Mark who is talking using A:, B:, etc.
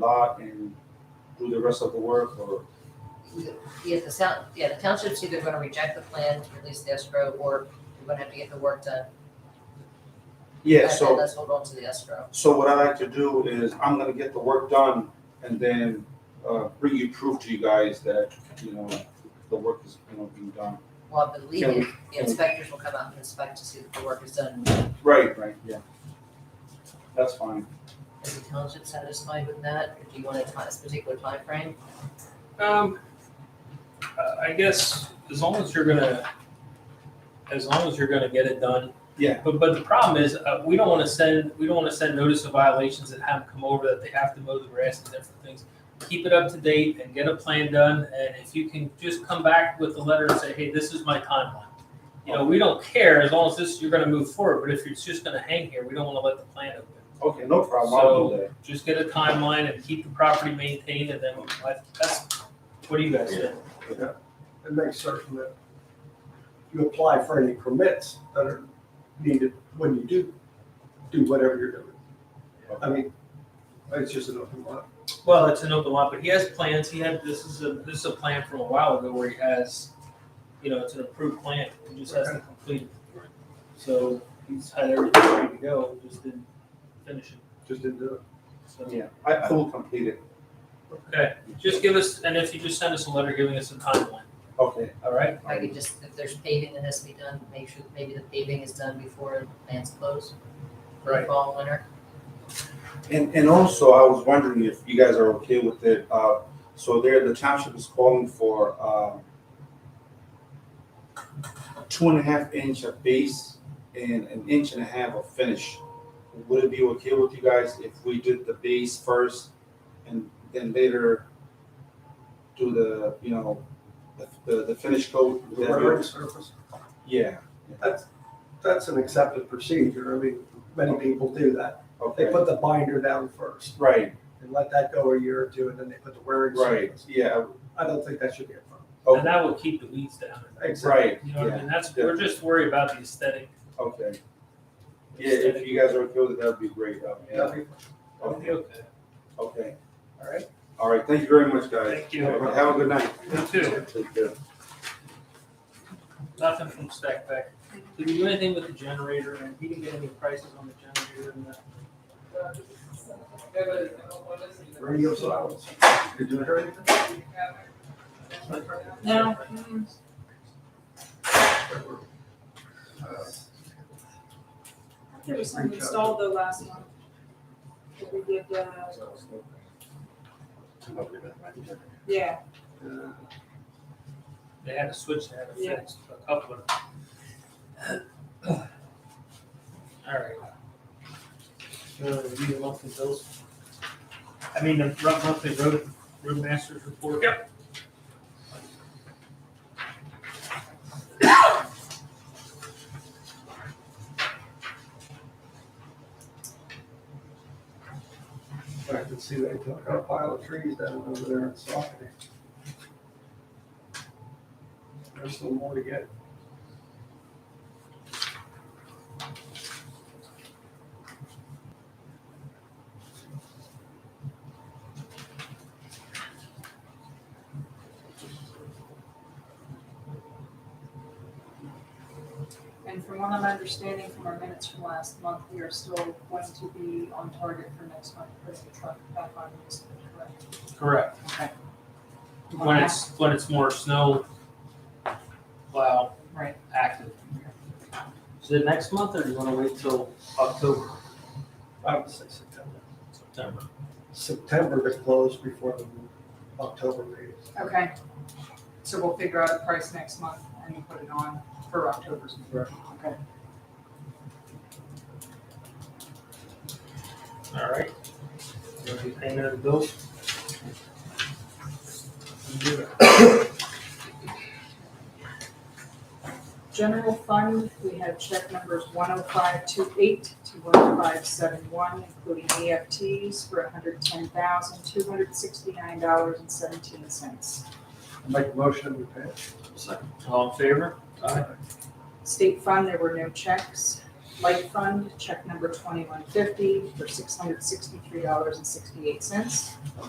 A: lot and do the rest of the work or?
B: Yeah, the sound, yeah, the township's either gonna reject the plan to release the escrow, or you're gonna have to get the work done.
A: Yeah,
B: And-
A: so.
B: And let's hold on to the escrow.
A: So what I like to do is I'm gonna get the work done and then uh bring you proof to you guys that, you know, the work is, you know, being done.
B: Well, I believe
A: Can we-
B: it, the inspectors will come out and inspect to see that the work is done.
A: Right, right, yeah. That's fine.
B: Is the township satisfied with that, or do you want a ti- a particular timeframe?
C: Um, I- I guess as long as you're gonna, as long as you're gonna get it done.
A: Yeah.
C: But, but the problem is, uh, we don't wanna send, we don't wanna send notice of violations and have them come over that they have to mow the grass and different things. Keep it up to date and get a plan done, and if you can just come back with a letter and say, hey, this is my timeline. You know, we don't care as long as this, you're gonna move forward, but if it's just gonna hang here, we don't wanna let the plan open.
A: Okay, no problem, I'll do that.
C: Just get a timeline and keep the property maintained and then, like, that's, what do you guys think?
D: and make certain that you apply for any permits that are needed when you do, do whatever you're doing. I mean, it's just an open line.
C: Well, it's an open lot, but he has plans. He had this is a this is a plan from a while ago where he has, you know, it's an approved plan. He just has to complete it. So he's had everything ready to go, just didn't finish it.
D: just didn't do
C: So
A: Yeah, I I will complete it.
C: okay, just give us and if you just send us a letter giving us a timeline,
A: Okay.
C: all right?
B: If I could just, if there's paving that has to be done, make sure that maybe the paving is done before the plants close. for the
C: Right.
B: Fall, and winter.
A: And, and also, I was wondering if you guys are okay with it, uh, so there, the township is calling for, um, two and a half inch of base and an inch and a half of finish. Would it be okay with you guys if we did the base first and then later do the, you know, the, the, the finish coat?
D: it. The rendering surface,
A: Yeah,
D: that's, that's an accepted procedure. I mean, many people do that. They
A: okay,
D: put the binder down first
A: right,
D: and let that go a year or two, and then they put the wearing
A: right,
D: surface.
A: yeah,
D: I don't think that should be a problem.
A: oh,
C: And that will keep the weeds down.
D: Exactly.
A: right,
C: You know what I
A: yeah,
C: mean? That's
A: yeah.
C: we're just worried about the aesthetic.
A: okay.
C: the
A: Yeah, if
C: aesthetic.
A: you guys are okay with it, that'd be great. uh, Yeah.
D: That'd be-
C: That'll be
A: Okay.
C: okay.
A: Okay.
D: All right.
A: All right. Thank you very much, guys.
C: Thank you.
A: Have a good night.
C: You too.
A: Take care.
C: Nothing from Stackback. Did you do anything with the generator and he didn't get any prices on the generator and the
D: Radio silence. Did you hear anything?
B: No.
E: There was some installed though last month. That we did, uh, yeah,
D: Uh,
C: They had a switch that had to
E: Yeah.
C: fix a couple of them. All right. So review the monthly bills. I mean, the rough monthly road, roadmaster's report. Yep.
D: I can see they took a pile of trees down over there in Saucony. There's still more to get.
E: and from what I'm understanding from our minutes from last month, we are still going to be on target for next month, putting the truck back on this, correct?
C: Correct.
E: Okay.
C: When it's, when it's more snow plow
B: Right.
C: active. Is it next month or do you wanna wait till October,
D: I would say September.
C: September?
D: September to close before the October meeting.
E: Okay, so we'll figure out a price next month and we'll put it on for October's. Okay.
C: All right. You wanna do payment of the bills?
E: General fund, we have check numbers one oh five two eight to one oh five seven one, including EFTs for hundred ten thousand, two hundred sixty-nine dollars and seventeen cents.
D: Make a motion, we pay.
C: All in favor?
D: Aye.
E: State fund, there were no checks. Light Fund, check number twenty-one fifty for six hundred sixty-three dollars and sixty-eight cents.